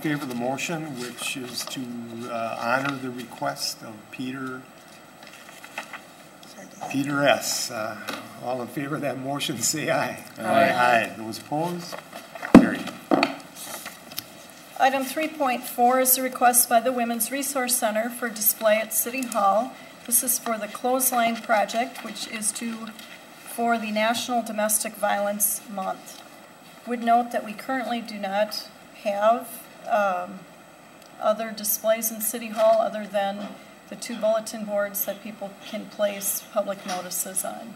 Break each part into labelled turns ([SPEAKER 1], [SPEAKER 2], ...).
[SPEAKER 1] favor of the motion, which is to uh, honor the request of Peter, Peter S. Uh, All in favor of that motion, say aye. Aye. Aye. Those opposed? Carried.
[SPEAKER 2] Item 3.4 is a request by the Women's Resource Center for display at City Hall. This is for the Clothesline Project, which is to, for the National Domestic Violence Month. Would note that we currently do not have um, other displays in City Hall other than the two bulletin boards that people can place public notices on.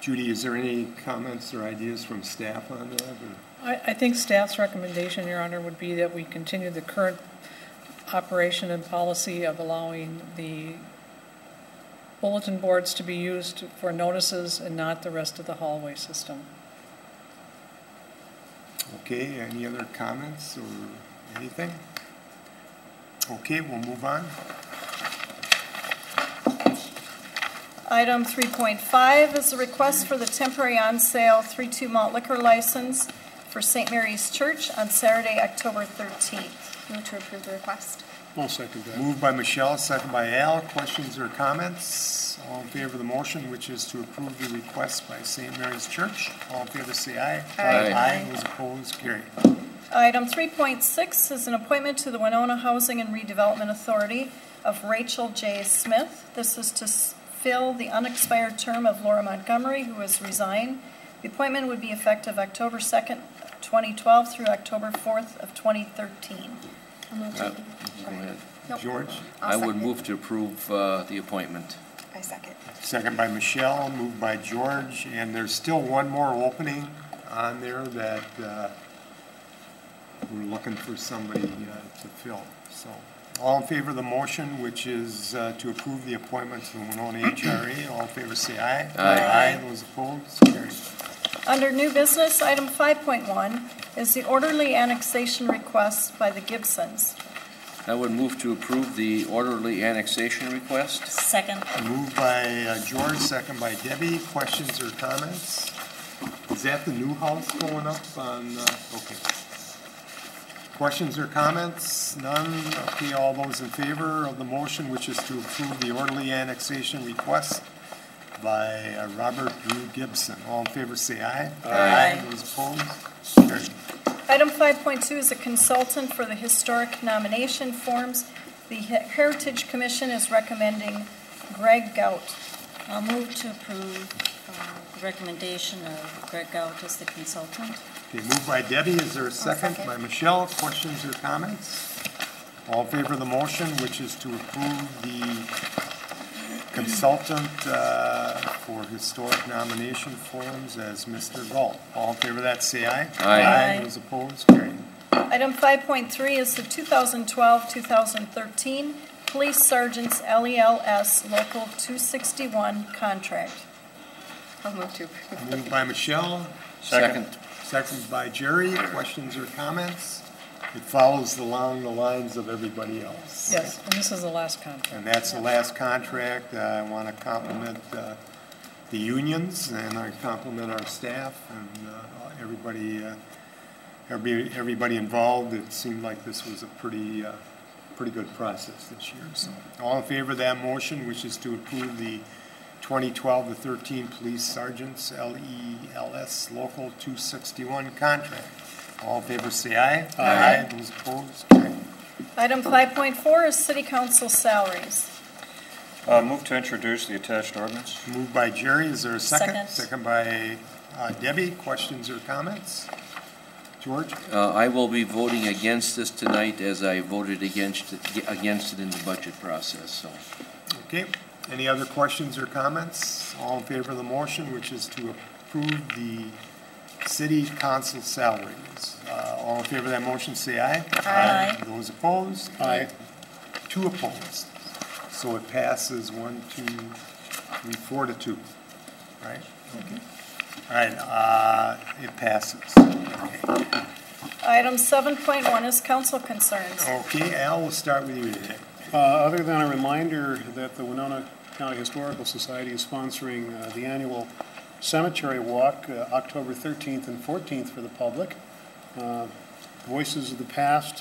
[SPEAKER 1] Judy, is there any comments or ideas from staff on that? or-
[SPEAKER 3] I, I think staff's recommendation, Your Honor, would be that we continue the current operation and policy of allowing the bulletin boards to be used for notices and not the rest of the hallway system.
[SPEAKER 1] Okay, any other comments or anything? Okay, we'll move on.
[SPEAKER 2] Item 3.5 is a request for the temporary on-sale 3-2 malt liquor license for St. Mary's Church on Saturday, October 13th.
[SPEAKER 4] Move to approve the request.
[SPEAKER 5] I'll second that.
[SPEAKER 1] Moved by Michelle, second by Al. Questions or comments? All in favor of the motion, which is to approve the request by St. Mary's Church. All in favor, say aye.
[SPEAKER 4] Aye.
[SPEAKER 1] Aye, those opposed, carried.
[SPEAKER 2] Item 3.6 is an appointment to the Winona Housing and Redevelopment Authority of Rachel J. Smith. This is to s- fill the unexpired term of Laura Montgomery, who has resigned. The appointment would be effective October 2nd, 2012 through October 4th of 2013.
[SPEAKER 4] I'll move to-
[SPEAKER 6] Uh, Go ahead.
[SPEAKER 4] Nope.
[SPEAKER 1] George,
[SPEAKER 4] I'll
[SPEAKER 6] I would
[SPEAKER 4] second.
[SPEAKER 6] move to approve uh, the appointment.
[SPEAKER 4] I second.
[SPEAKER 1] second by Michelle, moved by George, and there's still one more opening on there that uh, we're looking for somebody uh, to fill, so. All in favor of the motion, which is uh, to approve the appointment to the Winona HRA, all in favor, say aye.
[SPEAKER 6] Aye.
[SPEAKER 1] Aye, those opposed, carried.
[SPEAKER 2] Under new business, item 5.1 is the orderly annexation request by the Gibsons.
[SPEAKER 6] I would move to approve the orderly annexation request.
[SPEAKER 2] Second.
[SPEAKER 1] Moved by uh, George, second by Debbie. Questions or comments? Is that the new house going up on, uh, okay. Questions or comments? None? Okay, all those in favor of the motion, which is to approve the orderly annexation request by uh, Robert Drew Gibson. All in favor, say aye. Aye. Those opposed? Carried.
[SPEAKER 2] Item 5.2 is a consultant for the historic nomination forms. The He- Heritage Commission is recommending Greg Gout.
[SPEAKER 7] I'll move to approve uh, the recommendation of Greg Gout as the consultant.
[SPEAKER 1] Okay, moved by Debbie, is there a second?
[SPEAKER 4] second.
[SPEAKER 1] By Michelle, questions or comments? All in favor of the motion, which is to approve the consultant uh, for historic nomination forums as Mr. Galt. All in favor of that, say aye.
[SPEAKER 6] Aye.
[SPEAKER 1] Those opposed, carried.
[SPEAKER 2] Item 5.3 is the 2012-2013 Police Sergeant's LELS Local 261 contract.
[SPEAKER 4] I'll move to approve.
[SPEAKER 1] Moved by Michelle,
[SPEAKER 6] Second.
[SPEAKER 1] seconded by Jerry, questions or comments? It follows along the lines of everybody else.
[SPEAKER 3] Yes, and this is the last contract.
[SPEAKER 1] And that's the last contract. Uh, I want to compliment uh, the unions, and I compliment our staff and uh, everybody, uh, every- everybody involved. It seemed like this was a pretty, uh, pretty good process this year. So all in favor of that motion, which is to approve the 2012 to 13 Police Sergeants LELS Local 261 contract. All in favor, say aye. Aye. Those opposed, carried.
[SPEAKER 2] Item 5.4 is city council salaries.
[SPEAKER 8] Uh, Move to introduce the attached ordinance.
[SPEAKER 1] Moved by Jerry, is there a second?
[SPEAKER 7] Second.
[SPEAKER 1] by uh, Debbie, questions or comments? George?
[SPEAKER 6] Uh, I will be voting against this tonight as I voted against it, against it in the budget process, so.
[SPEAKER 1] Okay, any other questions or comments? All in favor of the motion, which is to approve the city council salaries. Uh, All in favor of that motion, say aye.
[SPEAKER 7] Aye.
[SPEAKER 1] Those opposed?
[SPEAKER 5] Aye.
[SPEAKER 1] Two opposed. So it passes one, two, three, four to two, right? Okay. All right, uh, it passes. Okay.
[SPEAKER 2] Item 7.1 is council concerns.
[SPEAKER 1] Okay, Al, we'll start with you today.
[SPEAKER 5] Uh, Other than a reminder that the Winona County Historical Society is sponsoring uh, the annual cemetery walk, uh, October 13th and 14th for the public. Uh, Voices of the Past